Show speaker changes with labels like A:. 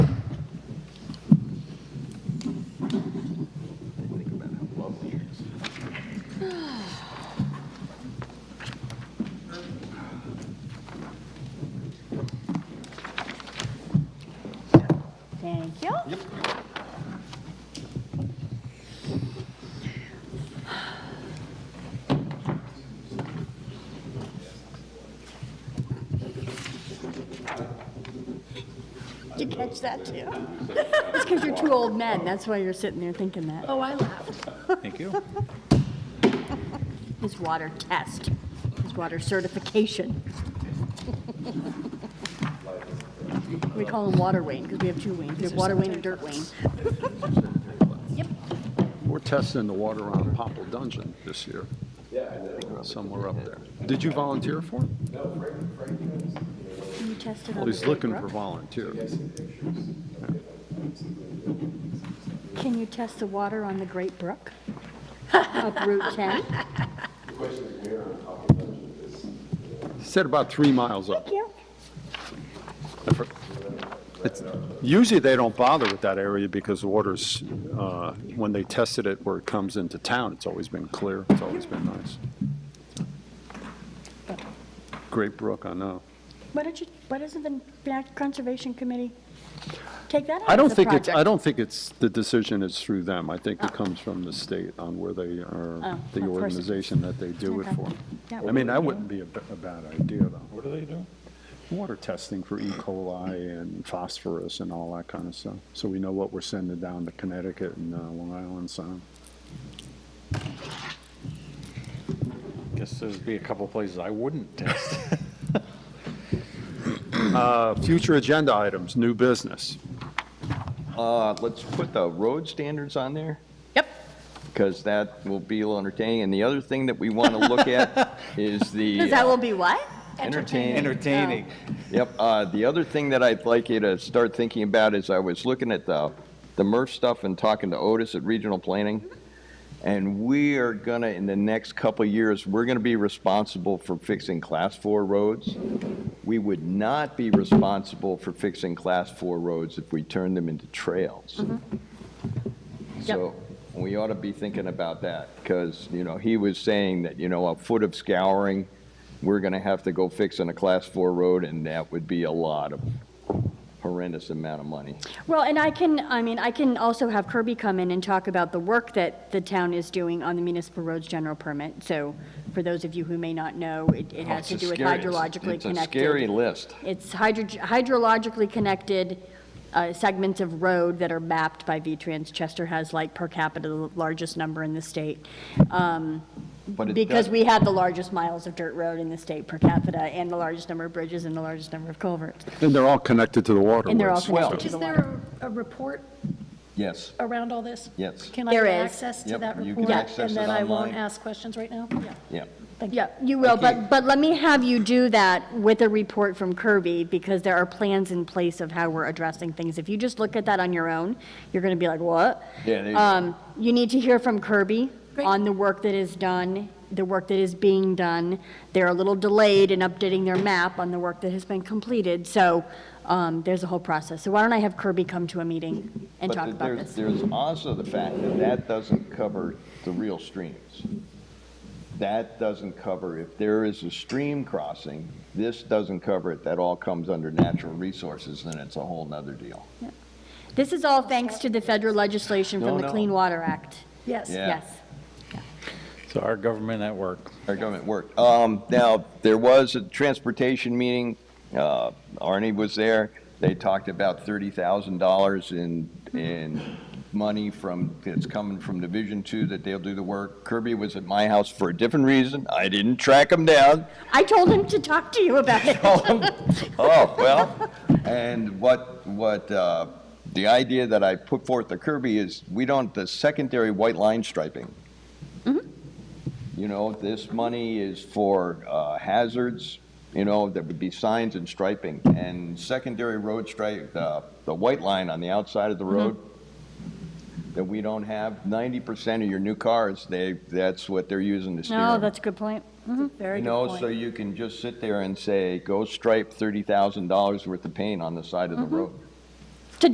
A: Thank you.
B: Yep.
A: Did you catch that too? It's because you're two old men, that's why you're sitting there thinking that.
C: Oh, I laughed.
D: Thank you.
A: His water test, his water certification. We call him Water Wayne because we have two Waynes, we have Water Wayne and Dirt Wayne.
B: We're testing the water around Popple Dungeon this year. Yeah. Somewhere up there. Did you volunteer for it?
A: Can you test it on
B: Well,
A: the
B: he's looking
A: Big
B: for
A: Brook?
B: volunteers.
A: Can you test the water on the Great Brook? Up Route 10?
B: He said about three miles up.
A: Thank you.
B: It's- Usually, they don't bother with that area because the water's, uh, when they tested it where it comes into town, it's always been clear, it's always been nice. Great brook, I know.
A: Why don't you, why doesn't the Back Conservation Committee take that on
B: I don't
A: as a
B: think it's, I
A: project?
B: don't think it's, the decision is through them. I think it comes from the state on where they are,
A: Oh,
B: the
A: of course.
B: organization that they do it
A: Okay.
B: for.
A: Yeah.
B: I mean, that wouldn't be a b- a bad idea, though.
D: What do they do?
B: Water testing for E. coli and phosphorus and all that kind of stuff. So we know what we're sending down to Connecticut and uh, Long Island Sound.
D: Guess there'd be a couple places I wouldn't test.
B: Uh, Future agenda items, new business.
E: Uh, let's put the road standards on there,
C: Yep.
E: because that will be entertaining. And the other thing that we want to look at is the.
A: Because that will be what?
E: Entertaining.
D: Entertaining.
A: Oh.
E: Yep, uh, the other thing that I'd like you to start thinking about is I was looking at the, the MRF stuff and talking to Otis at Regional Planning. And we are gonna, in the next couple of years, we're gonna be responsible for fixing class four roads. We would not be responsible for fixing class four roads if we turned them into trails.
A: Mm-hmm.
E: So we ought to be thinking about that, because, you know, he was saying that, you know, a foot of scouring, we're gonna have to go fix on a class four road, and that would be a lot of horrendous amount of money.
A: Well, and I can, I mean, I can also have Kirby come in and talk about the work that the town is doing on the municipal roads general permit. So for those of you who may not know, it, it has to
E: Oh, It's a
A: do with
E: scary-
A: hydrologically
E: It's a scary
A: connected.
E: list.
A: It's hydro, hydrologically connected uh, segments of road that are mapped by V-Trans. Chester has like per capita the largest number in the state. Um,
E: But it
A: Because
E: does-
A: we have the largest miles of dirt road in the state per capita and the largest number of bridges and the largest number of culverts.
B: And they're all connected to the waterways.
A: And they're all
E: Well-
A: connected to
C: Is
A: the
C: there
A: water.
C: a a report
E: Yes,
C: around all this?
E: Yes.
C: Can I
A: There
C: get
A: is.
C: access to
E: Yep,
C: that
E: you can
C: report?
E: access it
C: And then I won't
E: online.
C: ask questions right now? Yeah.
E: yeah.
A: Yeah, you will,
E: Okay.
A: but, but let me have you do that with a report from Kirby, because there are plans in place of how we're addressing things. If you just look at that on your own, you're gonna be like, what?
E: Yeah, there you go.
A: Um, you need to hear from Kirby
C: Great.
A: on the work that is done, the work that is being done. They're a little delayed in updating their map on the work that has been completed, so, um, there's a whole process. So why don't I have Kirby come to a meeting and
E: But
A: talk
E: th-
A: about
E: there's-
A: this?
E: There's also the fact that that doesn't cover the real streams. That doesn't cover, if there is a stream crossing, this doesn't cover it, that all comes under natural resources, and it's a whole nother deal.
A: This is all thanks to the federal legislation
E: No,
A: from the
E: no.
A: Clean Water Act.
C: Yes.
E: Yeah.
A: Yes.
D: So our government at work.
E: Our government worked. Um, Now, there was a transportation meeting, uh, Arnie was there, they talked about $30,000 in, in money from, that's coming from Division Two that they'll do the work. Kirby was at my house for a different reason, I didn't track him down,
A: I told him to talk to you about it.
E: Oh, well, and what, what, uh, the idea that I put forth to Kirby is, we don't, the secondary white line striping. You know, this money is for uh, hazards, you know, that would be signs and striping, and secondary road stripe, uh, the white line on the outside of the road that we don't have, ninety percent of your new cars, they, that's what they're using to steer
A: No,
E: 'em.
A: Oh, that's a good point. Mm-hmm.
C: Very
E: You
C: good
E: know, so
C: point. Mm-hmm.
E: you can just sit there and say, go stripe $30,000 worth of paint on the side of the road.